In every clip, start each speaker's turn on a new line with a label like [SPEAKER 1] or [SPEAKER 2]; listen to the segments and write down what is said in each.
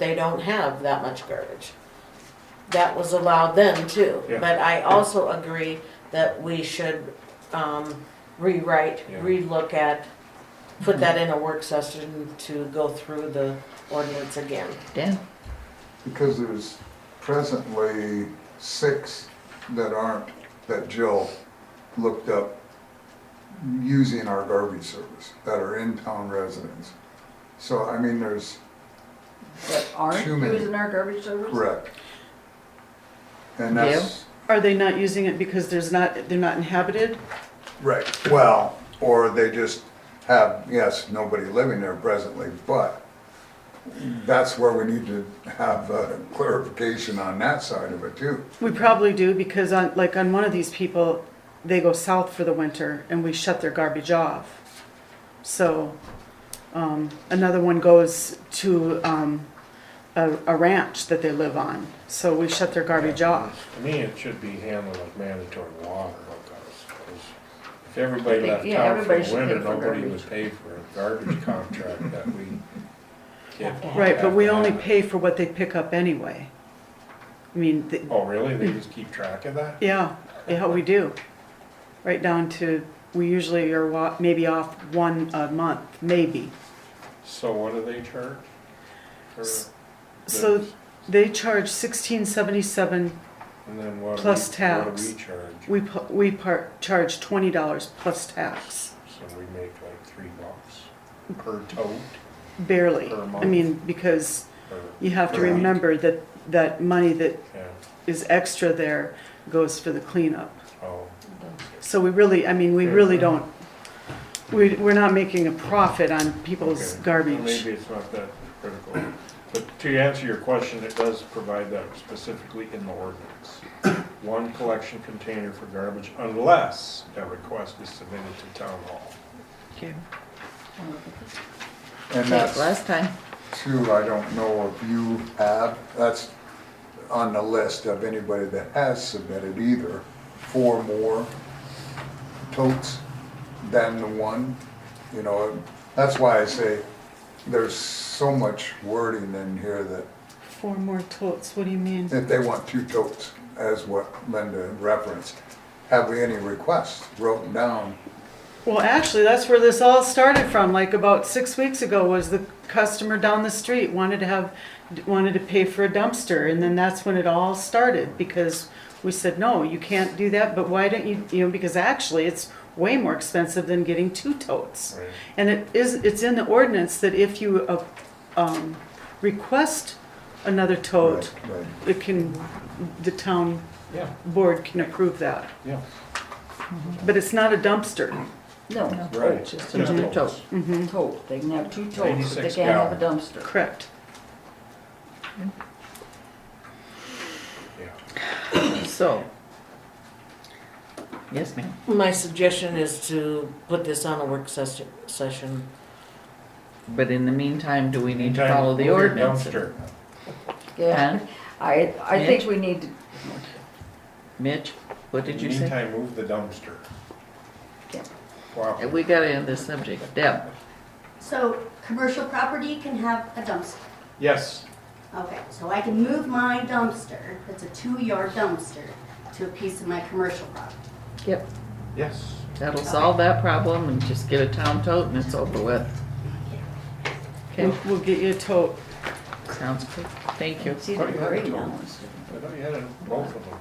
[SPEAKER 1] they don't have that much garbage. That was allowed then too,
[SPEAKER 2] Yeah.
[SPEAKER 1] but I also agree that we should, um, rewrite,
[SPEAKER 2] Yeah.
[SPEAKER 1] relook at, put that in a work session to go through the ordinance again.
[SPEAKER 3] Yeah,
[SPEAKER 4] Because there's presently six that aren't, that Jill looked up using our garbage service, that are in-town residents. So, I mean, there's,
[SPEAKER 5] that aren't
[SPEAKER 4] Too many.
[SPEAKER 5] using our garbage service?
[SPEAKER 4] correct. And that's,
[SPEAKER 6] Are they not using it because there's not, they're not inhabited?
[SPEAKER 4] right, well, or they just have, yes, nobody living there presently, but that's where we need to have uh, clarification on that side of it too.
[SPEAKER 6] We probably do because on, like on one of these people, they go south for the winter and we shut their garbage off. So, um, another one goes to, um, a, a ranch that they live on, so we shut their garbage off.
[SPEAKER 2] To me, it should be handled like mandatory water hookups, 'cause if everybody
[SPEAKER 5] I think-
[SPEAKER 2] left
[SPEAKER 5] yeah,
[SPEAKER 2] town for
[SPEAKER 5] everybody
[SPEAKER 2] the
[SPEAKER 5] should
[SPEAKER 2] winter,
[SPEAKER 5] pay for
[SPEAKER 2] nobody would
[SPEAKER 5] garbage.
[SPEAKER 2] pay for a garbage contract that we get.
[SPEAKER 6] Right, but we
[SPEAKER 2] have to
[SPEAKER 6] only
[SPEAKER 2] have.
[SPEAKER 6] pay for what they pick up anyway. I mean, th-
[SPEAKER 2] Oh, really? They just keep track of that?
[SPEAKER 6] Yeah, yeah, we do. Right down to, we usually are wa- maybe off one a month, maybe.
[SPEAKER 2] So what do they charge? for
[SPEAKER 6] S- So
[SPEAKER 2] this?
[SPEAKER 6] they charge sixteen seventy-seven,
[SPEAKER 2] And then what do we,
[SPEAKER 6] plus
[SPEAKER 2] what do we
[SPEAKER 6] tax.
[SPEAKER 2] charge?
[SPEAKER 6] we, pu- we part, charge twenty dollars plus tax,
[SPEAKER 2] So we make like three bucks per tote
[SPEAKER 6] barely.
[SPEAKER 2] Per
[SPEAKER 6] I
[SPEAKER 2] month.
[SPEAKER 6] mean, because
[SPEAKER 2] or,
[SPEAKER 6] you have to
[SPEAKER 2] Right.
[SPEAKER 6] remember that, that money that
[SPEAKER 2] yeah,
[SPEAKER 6] is extra there goes for the cleanup.
[SPEAKER 2] oh,
[SPEAKER 6] So we really, I mean, we really don't, we, we're not making a profit on people's
[SPEAKER 2] Okay. Well,
[SPEAKER 6] garbage.
[SPEAKER 2] Maybe it's not that critical, but to answer your question, it does provide that specifically in the ordinance. One collection container for garbage unless a request is submitted to town hall.
[SPEAKER 3] okay,
[SPEAKER 4] And that's.
[SPEAKER 3] last time,
[SPEAKER 4] Two, I don't know if you have, that's on the list of anybody that has submitted either, four more totes than the one, you know, that's why I say there's so much wording in here that
[SPEAKER 6] Four more totes, what do you mean?
[SPEAKER 4] if they want two totes, as what Linda referenced, have we any requests wrote down?
[SPEAKER 6] Well, actually, that's where this all started from. Like about six weeks ago, was the customer down the street wanted to have, wanted to pay for a dumpster, and then that's when it all started because we said, no, you can't do that. But why don't you? You know, because actually, it's way more expensive than getting two totes.
[SPEAKER 2] Right.
[SPEAKER 6] And it is, it's in the ordinance that if you, uh, um, request another tote,
[SPEAKER 4] Right, right.
[SPEAKER 6] it can, the town
[SPEAKER 2] Yeah,
[SPEAKER 6] board can approve that.
[SPEAKER 2] yeah.
[SPEAKER 6] But it's not a dumpster. Mm-hmm.
[SPEAKER 5] No,
[SPEAKER 2] Right.
[SPEAKER 3] just
[SPEAKER 2] Just
[SPEAKER 3] another tote.
[SPEAKER 2] totes.
[SPEAKER 5] tote, they can have two totes, but they
[SPEAKER 2] 96
[SPEAKER 5] can't have a dumpster.
[SPEAKER 6] Correct.
[SPEAKER 2] Yeah.
[SPEAKER 3] so. Yes, ma'am.
[SPEAKER 1] My suggestion is to put this on a work session, session.
[SPEAKER 3] But in the meantime, do we need to
[SPEAKER 2] Meantime,
[SPEAKER 3] follow the
[SPEAKER 2] move your
[SPEAKER 3] ordinance?
[SPEAKER 2] dumpster.
[SPEAKER 5] Yeah,
[SPEAKER 3] Huh?
[SPEAKER 5] I, I think we need to,
[SPEAKER 3] Mitch, what did you say?
[SPEAKER 2] Meantime, move the dumpster.
[SPEAKER 5] Yeah.
[SPEAKER 3] Uh,
[SPEAKER 2] Wow.
[SPEAKER 3] We gotta end this subject. Deb,
[SPEAKER 7] So, commercial property can have a dumpster.
[SPEAKER 2] Yes,
[SPEAKER 7] Okay, so I can move my dumpster, that's a two-yard dumpster, to a piece of my commercial property.
[SPEAKER 2] yes.
[SPEAKER 3] that'll solve that problem and just get a town tote and it's over with. Okay,
[SPEAKER 6] We'll, we'll get you a tote.
[SPEAKER 3] sounds good. Thank you.
[SPEAKER 5] see,
[SPEAKER 2] Oh, you
[SPEAKER 5] the
[SPEAKER 2] have a
[SPEAKER 5] grade
[SPEAKER 2] tote.
[SPEAKER 5] on this.
[SPEAKER 2] I thought you had it, both of them.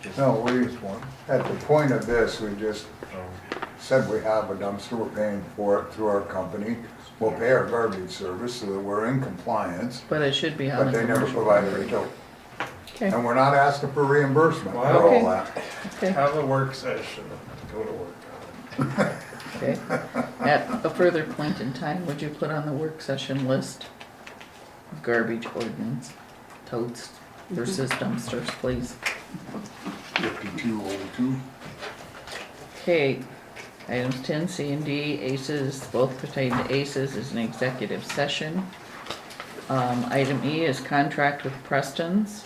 [SPEAKER 2] Just-
[SPEAKER 4] No, we-
[SPEAKER 2] Just one.
[SPEAKER 4] At the point of this, we just
[SPEAKER 2] Oh,
[SPEAKER 4] said we have a dumpster, we're paying for it through our company. We'll pay our garbage service so that we're in compliance,
[SPEAKER 3] But it should be on
[SPEAKER 4] but
[SPEAKER 3] the
[SPEAKER 4] they never
[SPEAKER 3] commercial.
[SPEAKER 4] provided a tote.
[SPEAKER 3] Okay,
[SPEAKER 4] And we're not asking for reimbursement for all that.
[SPEAKER 3] okay,
[SPEAKER 2] Have a work session, go to work on it.
[SPEAKER 3] okay. At a further point in time, would you put on the work session list? Garbage ordinance, totes versus dumpsters, please.
[SPEAKER 4] Fifty-two oh two.
[SPEAKER 3] Okay, items ten C and D, ACES, both pertain to ACES, is an executive session. Um, item E is contract with Preston's.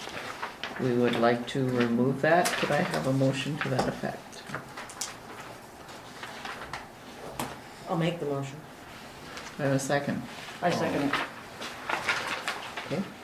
[SPEAKER 3] We would like to remove that. Could I have a motion to that effect?
[SPEAKER 1] I'll make the motion.
[SPEAKER 3] Do I have a second?
[SPEAKER 5] I second it.
[SPEAKER 3] Okay.